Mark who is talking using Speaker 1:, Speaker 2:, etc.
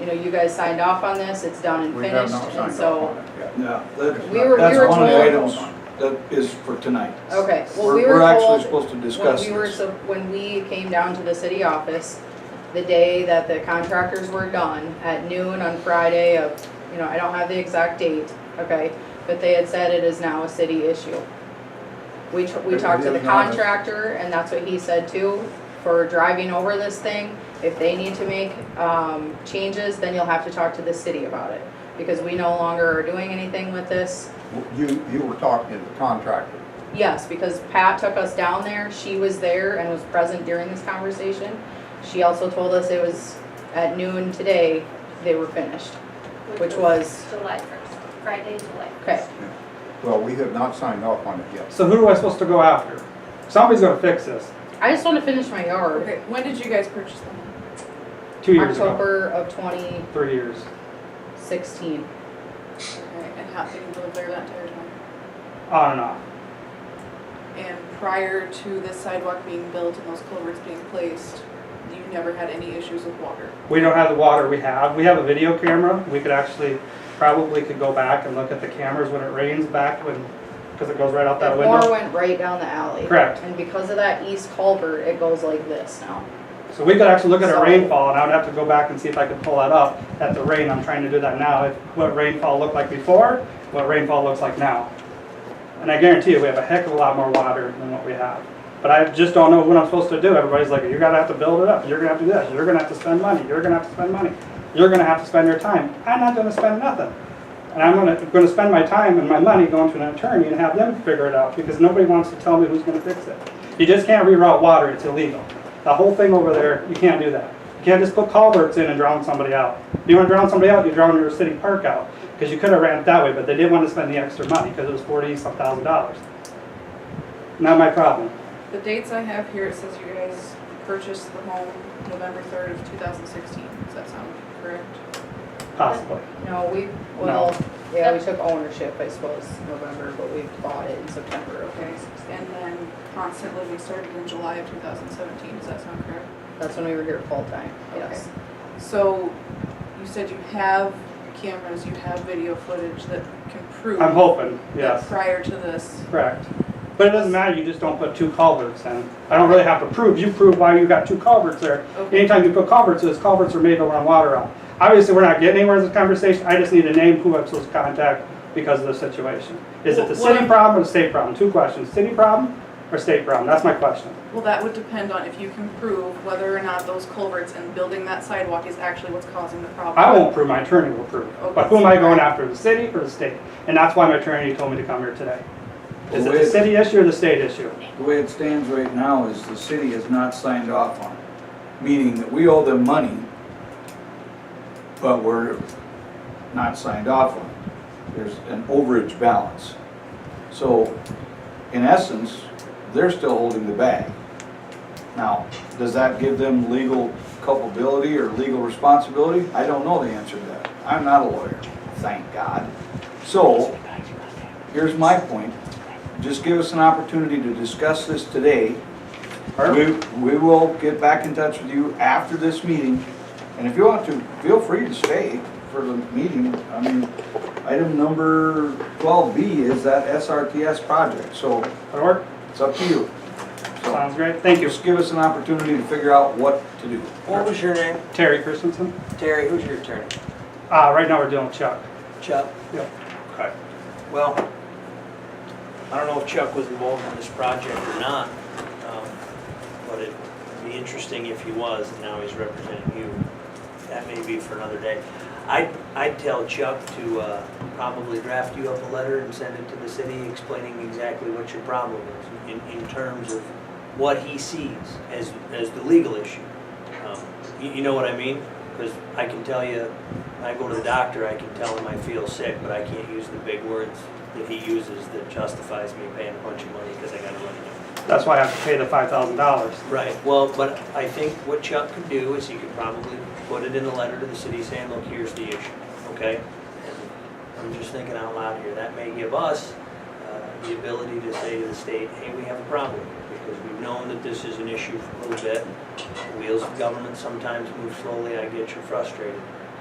Speaker 1: you know, you guys signed off on this, it's done and
Speaker 2: We have
Speaker 1: finished,
Speaker 2: not
Speaker 1: and
Speaker 2: signed off
Speaker 1: so.
Speaker 2: on it yet.
Speaker 3: No,
Speaker 2: It's
Speaker 3: that-
Speaker 1: We were- we
Speaker 3: that's
Speaker 1: were
Speaker 3: one of the
Speaker 1: told-
Speaker 3: items that is for tonight.
Speaker 1: Okay, well,
Speaker 3: We're-
Speaker 1: we were
Speaker 3: We're actually
Speaker 1: told,
Speaker 3: supposed to
Speaker 1: when
Speaker 3: discuss
Speaker 1: we were,
Speaker 3: this.
Speaker 1: so, when we came down to the city office, the day that the contractors were done, at noon on Friday of, you know, I don't have the exact date, okay? But they had said it is now a city issue. We, t- we
Speaker 2: It-
Speaker 1: talked
Speaker 2: it
Speaker 1: to the
Speaker 2: is not a-
Speaker 1: contractor, and that's what he said too, for driving over this thing. If they need to make, um, changes, then you'll have to talk to the city about it, because we no longer are doing anything with this.
Speaker 2: You, you were talking to the contractor.
Speaker 1: Yes, because Pat took us down there, she was there and was present during this conversation. She also told us it was at noon today, they were finished. Which was-
Speaker 4: July first, Friday, July first.
Speaker 1: Okay,
Speaker 2: Well, we have not signed off on it yet.
Speaker 5: So who am I supposed to go after? Somebody's gonna fix this,
Speaker 1: I just wanna finish my yard.
Speaker 6: Okay, when did you guys purchase them?
Speaker 5: two years ago,
Speaker 1: October of twenty
Speaker 5: three years.
Speaker 1: sixteen.
Speaker 6: Okay, and how did you live there that entire time?
Speaker 5: On and off.
Speaker 6: And prior to this sidewalk being built and those culverts being placed, you never had any issues with water?
Speaker 5: We don't have the water we have. We have a video camera. We could actually, probably could go back and look at the cameras when it rains back when, because it goes right out
Speaker 1: The
Speaker 5: that
Speaker 1: more
Speaker 5: window.
Speaker 1: went right down the alley.
Speaker 5: Correct.
Speaker 1: And because of that east culvert, it goes like this now.
Speaker 5: So we could actually look at a
Speaker 1: So-
Speaker 5: rainfall and I would have to go back and see if I could pull that up at the rain. I'm trying to do that now. if- What rainfall looked like before, what rainfall looks like now. And I guarantee you, we have a heck of a lot more water than what we have. But I just don't know what I'm supposed to do. Everybody's like, you're gonna have to build it up. You're gonna have to do this. You're gonna have to spend money. You're gonna have to spend money. You're gonna have to spend your time. I'm not gonna spend nothing. And I'm gonna, gonna spend my time and my money going to an attorney and have them figure it out because nobody wants to tell me who's gonna fix it. You just can't reroute water. It's illegal. The whole thing over there, you can't do that. You can't just put culverts in and drown somebody out. If you wanna drown somebody out, you drown your city park out. Because you could have ran it that way, but they didn't want to spend the extra money because it was forty some thousand dollars. Not my problem.
Speaker 6: The dates I have here, it says you guys purchased the home November third of two thousand sixteen, does that sound correct?
Speaker 5: Possibly.
Speaker 1: No, we, well, yeah, we took ownership, I suppose, November, but we bought it in September of
Speaker 6: Okay,
Speaker 1: 2016.
Speaker 6: and then constant living started in July of two thousand seventeen, does that sound correct?
Speaker 1: That's when we were here full time, yes.
Speaker 6: So, you said you have cameras, you have video footage that can prove.
Speaker 5: I'm hoping,
Speaker 6: that
Speaker 5: yes,
Speaker 6: Prior to this,
Speaker 5: correct. But it doesn't matter, you just don't put two culverts in. I don't really have to prove, you prove why you got two culverts there.
Speaker 6: okay,
Speaker 5: Anytime you put culverts, those culverts are made to run water out. Obviously, we're not getting anywhere in this conversation, I just need to name who I'm supposed to contact because of the situation. Is it the
Speaker 6: Well, what
Speaker 5: city
Speaker 6: I'm-
Speaker 5: problem or the state problem? Two questions, city problem or state problem? That's my question.
Speaker 6: well, that would depend on if you can prove whether or not those culverts and building that sidewalk is actually what's causing the problem.
Speaker 5: I won't prove, my attorney will prove. But who am I going after, the city or the state? And that's why my attorney told me to come here today. Is it the city issue or the state issue?
Speaker 3: The way it stands right now is the city has not signed off on it, meaning that we owe them money, but we're not signed off on it. There's an overage balance. So in essence, they're still holding the bag. Now, does that give them legal culpability or legal responsibility? I don't know the answer to that. I'm not a lawyer, thank God. So here's my point. Just give us an opportunity to discuss this today. We, we will get back in touch with you after this meeting. And if you want to, feel free to stay for the meeting. I mean, item number twelve B is that SRTS project, so
Speaker 5: That'll work?
Speaker 3: it's up to you. So
Speaker 5: Sounds great. Thank you.
Speaker 3: just give us an opportunity to figure out what to do.
Speaker 7: What was your name?
Speaker 5: Terry Christensen.
Speaker 7: Terry, who's your attorney?
Speaker 5: Uh, right now we're dealing with Chuck.
Speaker 7: Chuck?
Speaker 5: Yep.
Speaker 7: Okay. Well, I don't know if Chuck was involved in this project or not, um, but it'd be interesting if he was, and now he's representing you. That may be for another day. I'd, I'd tell Chuck to uh, probably draft you up a letter and send it to the city explaining exactly what your problem is in, in terms of what he sees as, as the legal issue. Um, You, you know what I mean? Because I can tell you, when I go to the doctor, I can tell him I feel sick, but I can't use the big words that he uses that justifies me paying a bunch of money because I gotta run it.
Speaker 5: That's why I have to pay the five thousand dollars.
Speaker 7: Right, well, but I think what Chuck could do is he could probably put it in a letter to the city saying, look, here's the issue, okay? And I'm just thinking out loud here, that may give us uh, the ability to say to the state, hey, we have a problem here, because we've known that this is an issue for a little bit. The Wheels of government sometimes move slowly, I get you're frustrated.